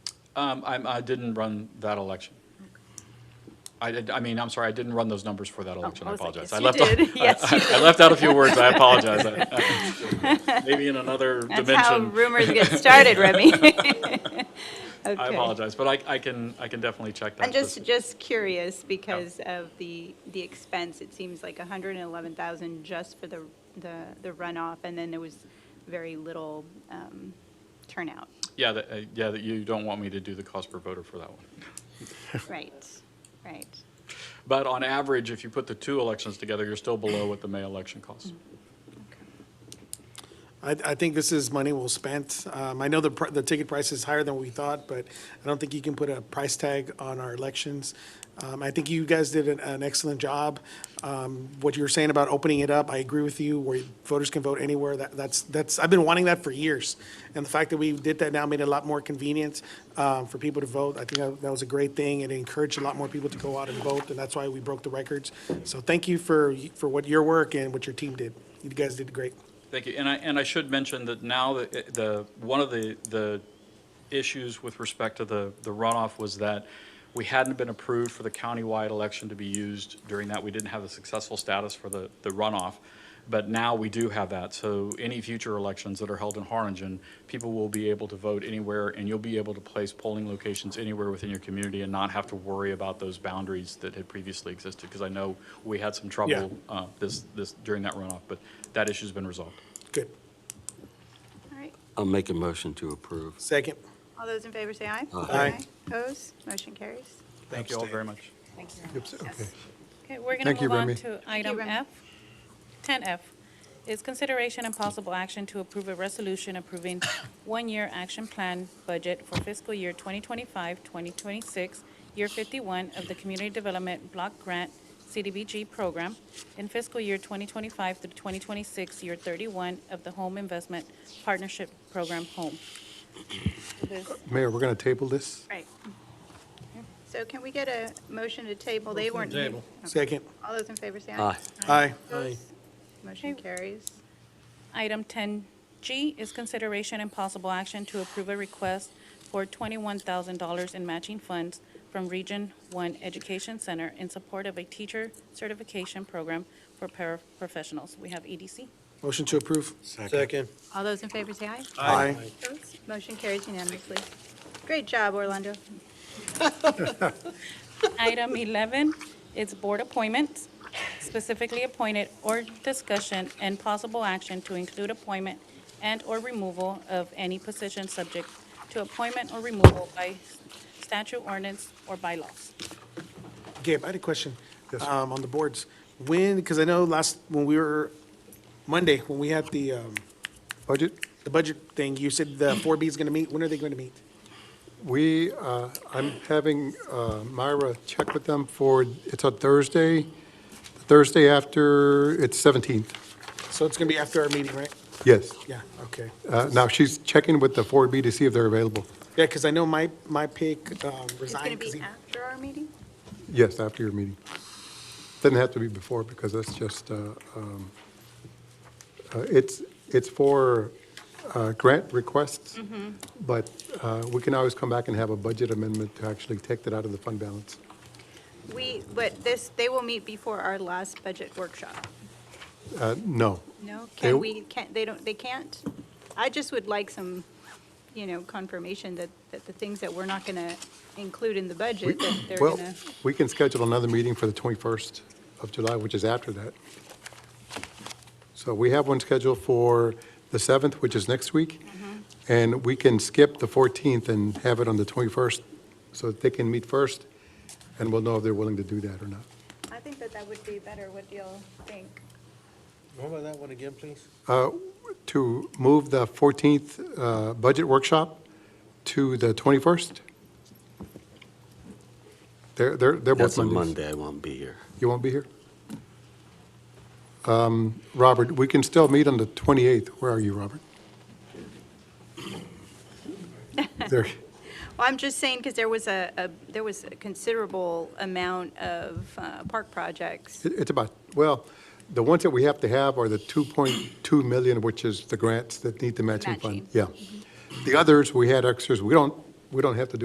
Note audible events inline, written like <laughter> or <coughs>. Um, I'm- I didn't run that election. I did, I mean, I'm sorry, I didn't run those numbers for that election, I Oh, was like, apologize. yes, I you left out- did. Yes, <laughs> I- I left out a few words, I apologize. I- I- Maybe in another That's how dimension. rumors get started, Remy. <laughs> I apologize, but I I can, I can definitely check that. I'm just, this- just curious because of the, the expense. It seems like 111,000 just for the, the the runoff, and then there was very little um, turnout. Yeah, that, uh, yeah, that you don't want me to do the cost per voter for that one. Right, right. But on average, if you put the two elections together, you're still below what the May election Mm. costs. I, I think this is money well spent. Um, I know the, pr- the ticket price is higher than we thought, but I don't think you can put a price tag on our elections. Um, I think you guys did an, an excellent job. Um, what you were saying about opening it up, I agree with you, where voters can vote anywhere, that, that's, that's, I've been wanting that for years. And the fact that we did that now made it a lot more convenient, um, for people to vote. I think that, that was a great thing and it encouraged a lot more people to go out and vote, and that's why we broke the records. So thank you for, for what your work and what your team did. You guys did great. Thank you. And I, and I should mention that now the, the, one of the, the issues with respect to the, the runoff was that we hadn't been approved for the countywide election to be used during that. We didn't have the successful status for the, the runoff. But now we do have that. So any future elections that are held in Harlingen, people will be able to vote anywhere and you'll be able to place polling locations anywhere within your community and not have to worry about those boundaries that had previously existed. Because I know we had some trouble uh, this, this, during that runoff, but that issue's been resolved. Good. All right. I'll make a motion to approve. Second. All those in favor say aye. Aye. Opposed? Motion carries. Thank you all very much. Thank you. Okay. Okay, we're going Thank to you, move on Remy. to item Remy. F. 10F is consideration and possible action to approve a resolution approving <coughs> one-year action plan budget for fiscal year 2025, 2026, year 51 of the Community Development Block Grant CDBG program, and fiscal year 2025 through 2026, year 31 of the Home Investment Partnership Program Home. This- Mayor, we're going to table this? Right. So can we get a motion to table? They weren't. Table. Second. All those in favor say aye. Aye. Aye. Opposed? Motion Okay. carries. Item 10G is consideration and possible action to approve a request for $21,000 in matching funds from Region 1 Education Center in support of a teacher certification program for paraprofessionals. We have E EDC. Motion to approve. Second. All those in favor say aye. Aye. Opposed? Motion carries unanimously. Great job, Orlando. Item 11 is board appointments, specifically appointed or discussion and possible action to include appointment and/or removal of any position subject to appointment or removal by statute, ordinance, or bylaws. Gabe, I had a question. Yes, sir. Um, on the boards. When, because I know last, when we were, Monday, when we had the, um, Budget? the budget thing, you said the four B is going to meet. When are they going to meet? We, uh, I'm having uh, Myra check with them for, it's on Thursday, Thursday after, it's 17th. So it's going to be after our meeting, right? Yes. Yeah, okay. Uh, Now, she's checking with the 4B to see if they're available. Yeah, because I know my, my pick um, It's going resigned. to 'cause be he- after our meeting? Yes, after your meeting. Doesn't have to be before, because that's just, uh, um, uh, it's, it's for uh, grant requests, but uh, we can always come back and have a budget amendment to actually take that out of the fund balance. We, but this, they will meet before our last budget workshop. Uh, No, No, They- can we, can't, they don't, they can't? I just would like some, you know, confirmation that, that the things that we're not going to include in the budget, that they're well, going to. we can schedule another meeting for the 21st of July, which is after that. So we have one scheduled for the 7th, which is next week, and we can skip the 14th and have it on the 21st, so that they can meet first, and we'll know if they're willing to do that or not. I think that that would be better. What do y'all think? Remember that one again, please? Uh, To move the 14th uh, budget workshop to the 21st? They're, they're they're both That's a Mondays. Monday, I won't be here. You won't be here? Um, Robert, we can still meet on the 28th. Where are you, Robert? There, Well, I'm just saying, because there was a, a- there was a considerable amount of uh, park projects. it- it's about, well, the ones that we have to have are the 2.2 million, which is the grants that need the matching fund. Matching. Yeah. The others, we had extras. We don't, we don't have to do